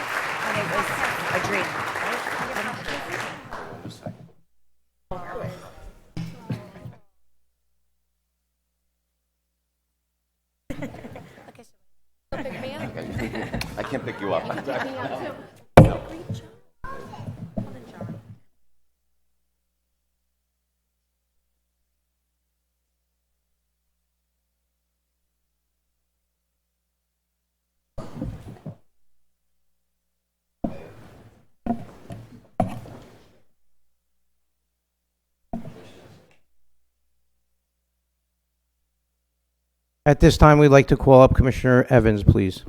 and it was a dream. I can't pick you up. At this time, we'd like to call up Commissioner Evans, please.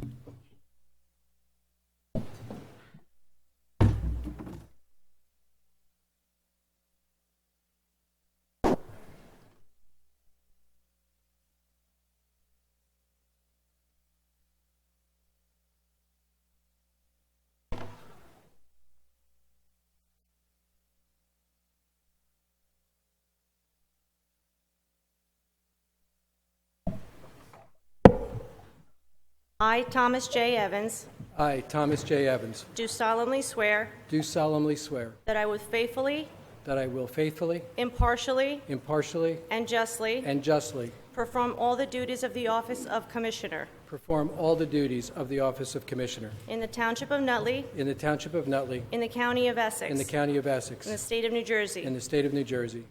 I, Thomas J. Evans, I, Thomas J. Evans, do solemnly swear do solemnly swear that I will faithfully, that I will faithfully, impartially, impartially, and justly and justly perform all the duties of the office of Commissioner perform all the duties of the office of Commissioner in the Township of Nutley, in the Township of Nutley, in the County of Essex, in the County of in the Essex, State of New in Jersey, the State of New Jersey,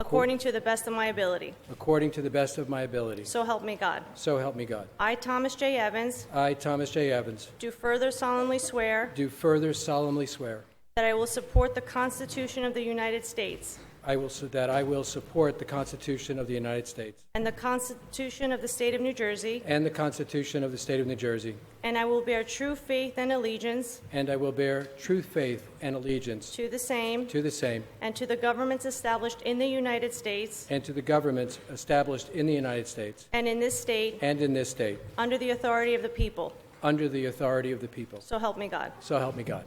according to the best of my ability. according to the best of my ability. So help me God. So help me God. I, Thomas J. Evans, I, Thomas J. Evans, do further solemnly swear do further solemnly swear that I will support the Constitution of the United States I will, that I will support the Constitution of the United States and the Constitution of the State of New Jersey, and the Constitution of the State of New Jersey, and I will bear true faith and allegiance and I will bear true faith and allegiance to the same to the same and to the governments established in the United States and to the governments established in the United States and in this state and in this state, under the authority of the people. under the authority of the people. So help me God. So help me God.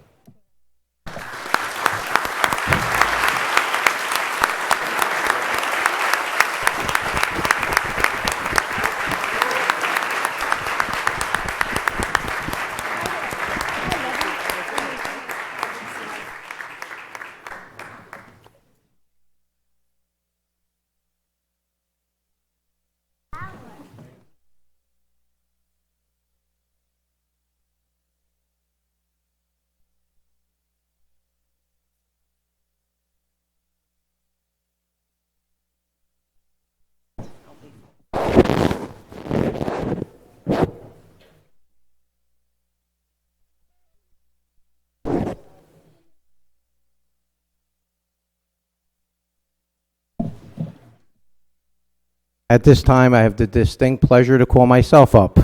At this time, I have the distinct pleasure to call myself up.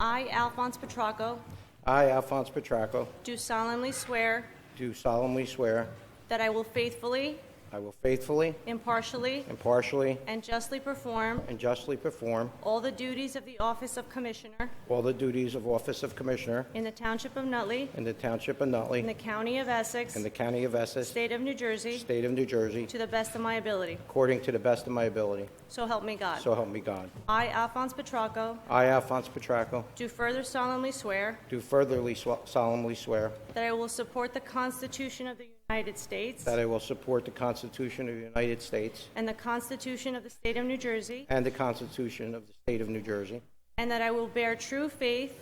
I, Alphonse Petracco, I, Alphonse Petracco, do solemnly swear do solemnly swear that I will faithfully, I will faithfully, impartially, impartially, and justly perform and justly perform all the duties of the office of Commissioner all the duties of Office of Commissioner in the Township of Nutley, in the Township of in Nutley, the County of Essex, in the County of Essex, State of New Jersey, State of New Jersey, to the best of my ability. according to the best of my ability. So help me God. So help me God. I, Alphonse Petracco, I, Alphonse Petracco, do further solemnly swear do furtherly sw- solemnly swear that I will support the Constitution of the United States that I will support the Constitution of the United States and the Constitution of the State of New Jersey, and the Constitution of the State of New Jersey, and that I will bear true faith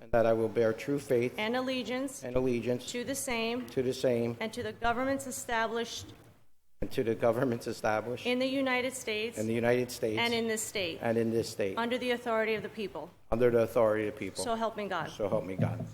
and that I will bear true faith and allegiance and allegiance to the same to the same and to the governments established and to the governments established in the United States in the United States and in this state, and in this state, under the authority of the people. under the authority of the people. So help me God. So help me God.